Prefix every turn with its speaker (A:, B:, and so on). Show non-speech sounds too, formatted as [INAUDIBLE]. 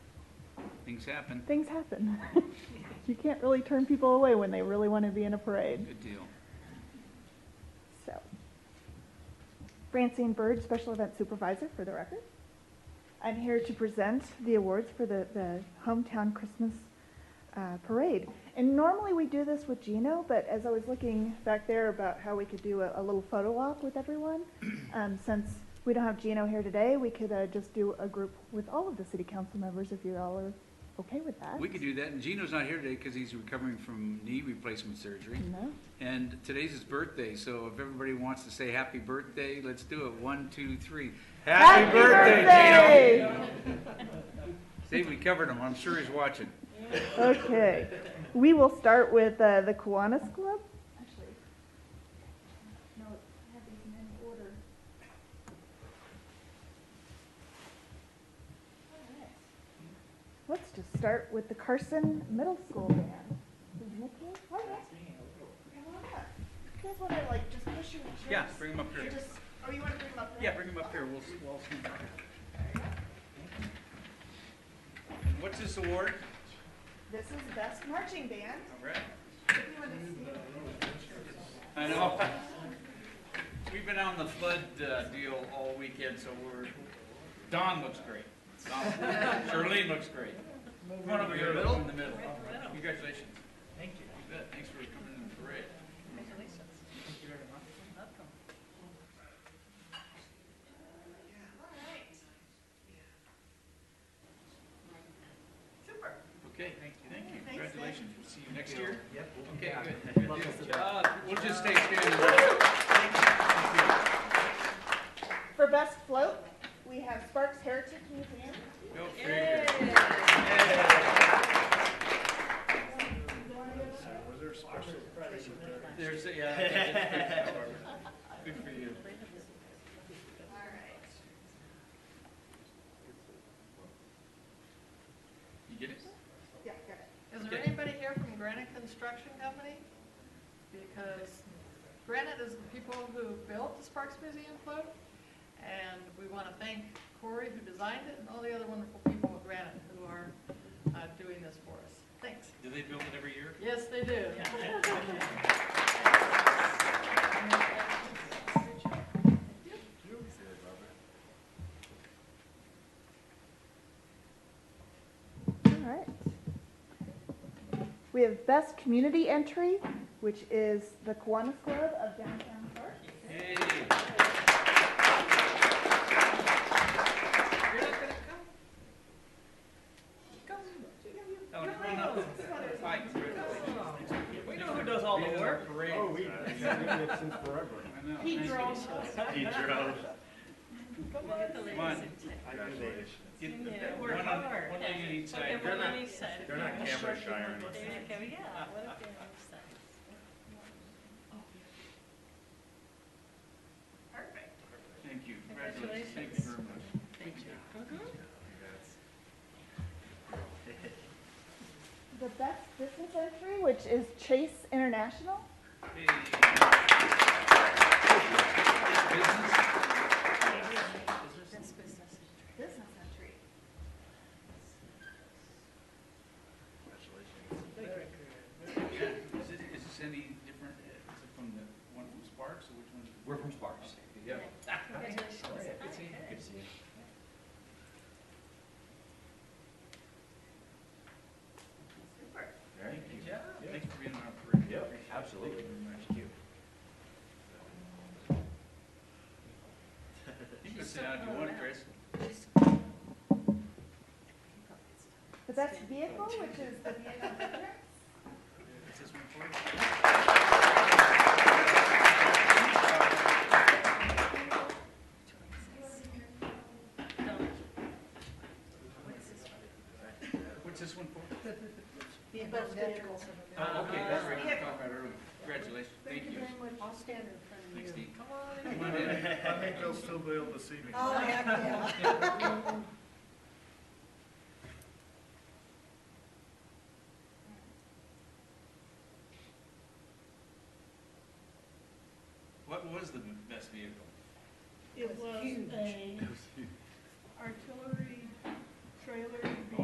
A: Things happen.
B: Things happen. [LAUGHS] You can't really turn people away when they really want to be in a parade,
A: Good deal.
B: so. Francine Bird, Special Event Supervisor, for the record. I'm here to present the awards for the, the Hometown Christmas uh, Parade. And normally we do this with Gino, but as I was looking back there about how we could do a, a little photo op
A: [CLEARS THROAT]
B: with everyone, um, since we don't have Gino here today, we could uh, just do a group with all of the city council members if you all are okay with that.
A: We could do that, and Gino's not here today because he's recovering from knee replacement surgery.
B: No?
A: And today's his birthday, so if everybody wants to say happy birthday, let's do it. One, two, three. Happy birthday, Gino! See, we covered him. I'm sure he's watching.
B: Okay, we will start with uh, the Kiwanis Club. Actually, no, I have these in any order. Let's just start with the Carson Middle School band. Is Nick here? Hi, Nick. Come on up. You guys want to like just push your chairs?
A: Yeah, bring him up here.
B: Or just- or you want to bring them up now?
A: Yeah, bring him up here. We'll, we'll see him back here. What's this award?
B: This is Best Marching Band.
A: All right.
B: You want to see them?
A: I know. We've been on the flood uh, deal all weekend, so we're, Don looks great. Don- Charlene looks great. Come on over here, Bill, in the middle. Congratulations. Thank you. You bet, thanks for coming in the parade. Okay, thank you, thank you. Congratulations. We'll see you next year. Yep. Okay, good. Good. Uh, We'll just stay standing.
B: For Best Float, we have Sparks Heritage Museum.
A: No, very good. There's, a- yeah. [LAUGHS] Good for you. You get it?
B: Yeah, got it.
C: Is there
A: Okay.
C: anybody here from Granite Construction Company? Because Granite is the people who built the Sparks Museum float, and we want to thank Corey who designed it, and all the other wonderful people at Granite who are uh, doing this for us. Thanks.
A: Do they build it every year?
C: Yes, they do.
B: All right. We have Best Community Entry, which is the Kiwanis Club of Downtown Park.
A: Hey,
C: You're not gonna come? Come.
A: Ellen, come on up. Hi, congratulations.
D: We know who does all the work.
A: Parade.
E: Oh, we, we've been here since forever.
A: I know.
C: He
A: Thank you.
C: drove.
E: He drove.
C: Come on.
A: Come on. Get-
F: Yeah,
A: One
F: we're
A: on,
F: hard.
A: one on each side.
F: Everyone on each side.
E: They're not camera shy or
F: There
E: anything.
F: you go, yeah,
A: Uh,
F: what if they're on each side?
C: Perfect.
A: Thank you. Congratulations. Thank you very much.
F: Thank you.
C: Mm-hmm.
B: The Best Business Entry, which is Chase International.
A: Hey. Business?
F: That's business.
B: Business Entry.
A: Is it- is this any different, uh, is it from the one from Sparks or which one's?
D: We're from Sparks.
A: Yeah.
F: Congratulations. Hi,
D: Good
F: good.
D: to see you. Very
A: Thank you.
D: good job.
A: Thanks for being on our parade.
D: Yep,
A: Appreciate it.
D: absolutely.
A: Thank
C: [LAUGHS]
A: you. You can sit down if you want, Chris.
B: The Best Vehicle, which is the Vehicle Vendor.
A: Is this one for you? What's this one for?
C: Best vehicles.
A: Oh, okay, that's right, we
C: Vehicle.
A: talked about it earlier. Congratulations, thank you.
C: I'll stand in front of you.
A: Thanks, Steve.
C: Come
A: Come
C: on.
A: on in.
E: I think they'll still be able to see me.
C: Oh, heck yeah.
A: What was the best vehicle?
F: It was a